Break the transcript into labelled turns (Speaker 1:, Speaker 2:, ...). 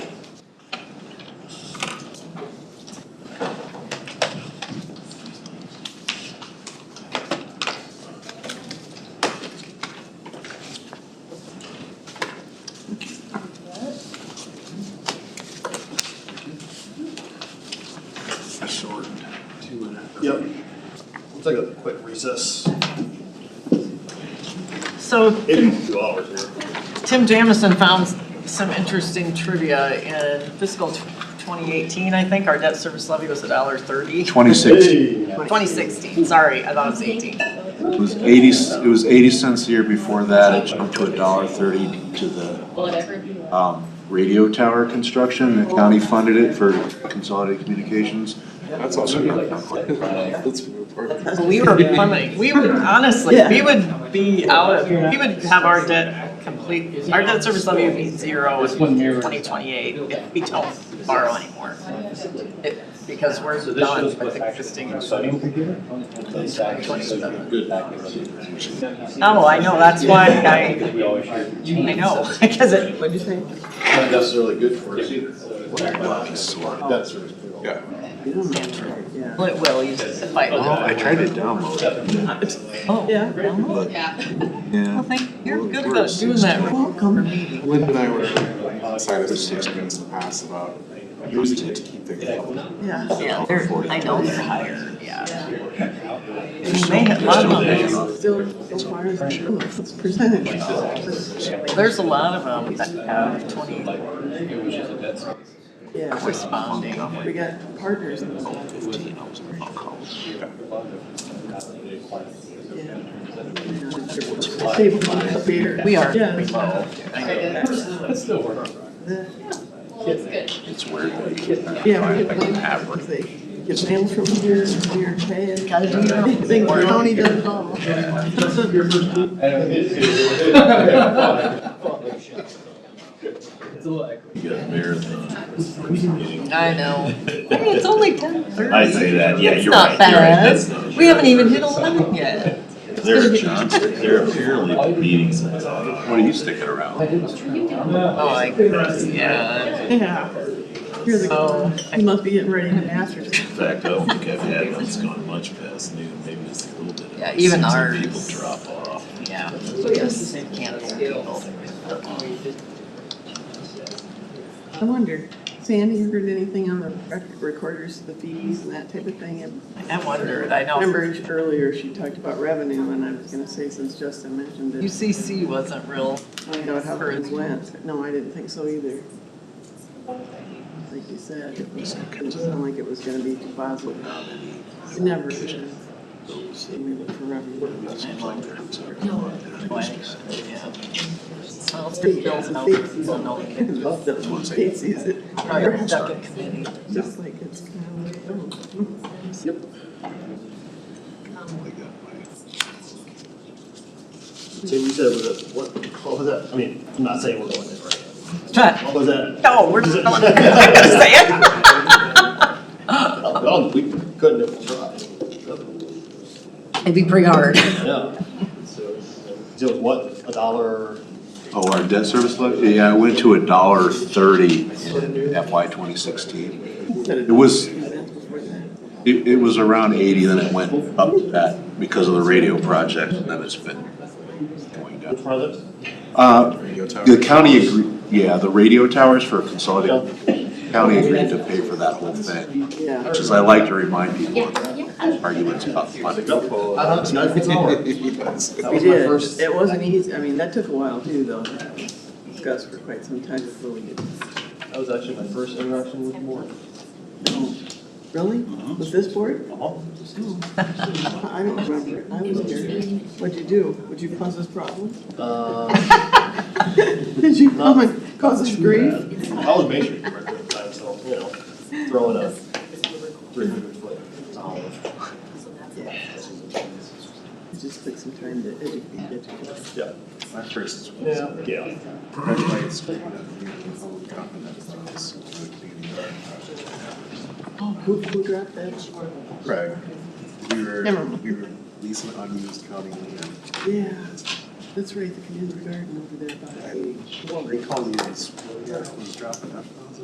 Speaker 1: short two and a half.
Speaker 2: Yep. We'll take a quick recess.
Speaker 3: So
Speaker 2: Maybe two hours here.
Speaker 3: Tim Jamison found some interesting trivia in fiscal tw- 2018, I think, our debt service levy was a dollar thirty.
Speaker 4: Twenty-six, it
Speaker 2: Hey.
Speaker 3: 2016, sorry, I thought it was 18.
Speaker 4: was eighty, it was eighty cents the year before that, it jumped to a dollar thirty to the,
Speaker 5: Whatever you want.
Speaker 4: um, radio tower construction, the county funded it for consolidated communications.
Speaker 1: That's awesome. That's perfect.
Speaker 3: We were plummeting, we would, honestly, we would be out of, we would have our debt complete, our debt service levy would be zero in 2028 if we don't borrow anymore. It- Because we're
Speaker 6: So this
Speaker 3: done
Speaker 6: shows
Speaker 3: with
Speaker 6: what's
Speaker 3: the
Speaker 6: actually
Speaker 3: existing.
Speaker 6: in the sodium computer? That's actually so
Speaker 1: Good.
Speaker 3: Oh, I know, that's why I,
Speaker 6: Because we always share.
Speaker 3: I know, because it, what'd you say?
Speaker 2: Not necessarily good for us either. That's really cool.
Speaker 1: Yeah.
Speaker 3: Well, it will, you just fight with
Speaker 4: Oh, I
Speaker 3: it.
Speaker 4: tried to download it,
Speaker 3: Oh, yeah. Well,
Speaker 4: but,
Speaker 5: Yeah.
Speaker 4: yeah.
Speaker 3: thank, you're good about doing that. Welcome.
Speaker 1: Lynn and I were excited to see students in the past about using it to keep things level.
Speaker 3: Yeah, yeah, they're, I know, they're higher, yeah.
Speaker 4: They
Speaker 3: And they have, a lot of them, there's a lot of them that have twenty,
Speaker 6: It was just a bit.
Speaker 3: corresponding.
Speaker 7: We got partners in the
Speaker 4: Fifteen, I was in college.
Speaker 7: Save a lot of beer.
Speaker 3: We are
Speaker 7: Yeah.
Speaker 3: below.
Speaker 6: That's still working.
Speaker 5: Well, that's good.
Speaker 4: It's weird.
Speaker 7: Yeah, we get blamed because they get mail from here, and here, and pay.
Speaker 3: Gotta do your own
Speaker 7: Think the
Speaker 3: work.
Speaker 7: county does it all.
Speaker 8: You got a marathon.
Speaker 3: I know. Hey, it's only ten thirty.
Speaker 8: I'd say that, yeah,
Speaker 3: It's
Speaker 8: you're
Speaker 3: not
Speaker 8: right, you're right,
Speaker 3: bad.
Speaker 8: that's not
Speaker 3: We haven't even hit eleven yet.
Speaker 8: They're Johnson, they're apparently meeting some, what are you sticking around?
Speaker 3: Oh, I, yeah.
Speaker 7: Yeah. You're
Speaker 3: Oh.
Speaker 7: the, you must be getting ready to masters.
Speaker 8: In fact, I don't think I've had one that's gone much past noon, maybe just a little bit.
Speaker 3: Yeah, even
Speaker 8: Seems like
Speaker 3: ours.
Speaker 8: People drop off.
Speaker 3: Yeah. This is Canada people.
Speaker 7: I wonder, Sandy, you heard anything on the record recorders, the fees and that type of thing? And
Speaker 3: I wondered, I
Speaker 7: I
Speaker 3: know.
Speaker 7: remember earlier she talked about revenue and I was gonna say since Justin mentioned it,
Speaker 3: UCC wasn't real.
Speaker 7: find out how things went. No, I didn't think so either. Like you said, it was- it didn't sound like it was gonna be too positive. It never is. And we look for revenue.
Speaker 3: Yeah. Well, it's pretty bills now, so no one
Speaker 7: I
Speaker 3: can-
Speaker 7: love that one state sees it.
Speaker 3: Probably our second committee.
Speaker 7: Just like it's kind of like, oh.
Speaker 2: So you said, was it- what, what was that? I mean, I'm not saying we're going in right now. What was that?
Speaker 3: No, we're just going, I'm not gonna say it.
Speaker 2: Oh, we couldn't have tried.
Speaker 3: It'd be pretty hard.
Speaker 2: Yeah. So so it was what, a dollar?
Speaker 4: Oh, our debt service levy, yeah, it went to a dollar thirty in FY twenty sixteen. It was, it, it was around eighty, then it went up to that because of the radio project, and then it's been going
Speaker 2: Which
Speaker 4: down.
Speaker 2: one of those?
Speaker 4: Uh,
Speaker 1: Radio tower.
Speaker 4: the county agreed, yeah, the radio towers for consolidated, county agreed to pay for that whole thing,
Speaker 7: Yeah.
Speaker 4: which is I like to remind people
Speaker 5: Yeah, yeah.
Speaker 4: of arguments about funding.
Speaker 2: Uh-huh, it's not- it's an hour.
Speaker 1: Yes.
Speaker 2: That
Speaker 7: We
Speaker 2: was my
Speaker 7: did,
Speaker 2: first-
Speaker 7: it wasn't easy, I mean, that took a while too, though, discussed for quite some time before we did.
Speaker 2: That was actually my first interaction with the board.
Speaker 7: Really? Was this board? I don't remember, it. I was here. What'd you do? Would you cause us problems?
Speaker 2: Uh,
Speaker 7: Did you come and cause us grief?
Speaker 2: I was majoring at the time, so, you know, throwing a three hundred foot olive.
Speaker 7: It just took some time to educate, educate. us.
Speaker 2: Yeah.
Speaker 1: My first was.
Speaker 2: Yeah. Yeah.
Speaker 7: Oh, Who, who dropped that?
Speaker 1: Craig, we
Speaker 7: Never
Speaker 1: were,
Speaker 7: mind.
Speaker 1: we were leasing unused county land.
Speaker 7: Yeah, that's right, the community garden over there by the.
Speaker 1: They called me, and it's, yeah, it was dropping.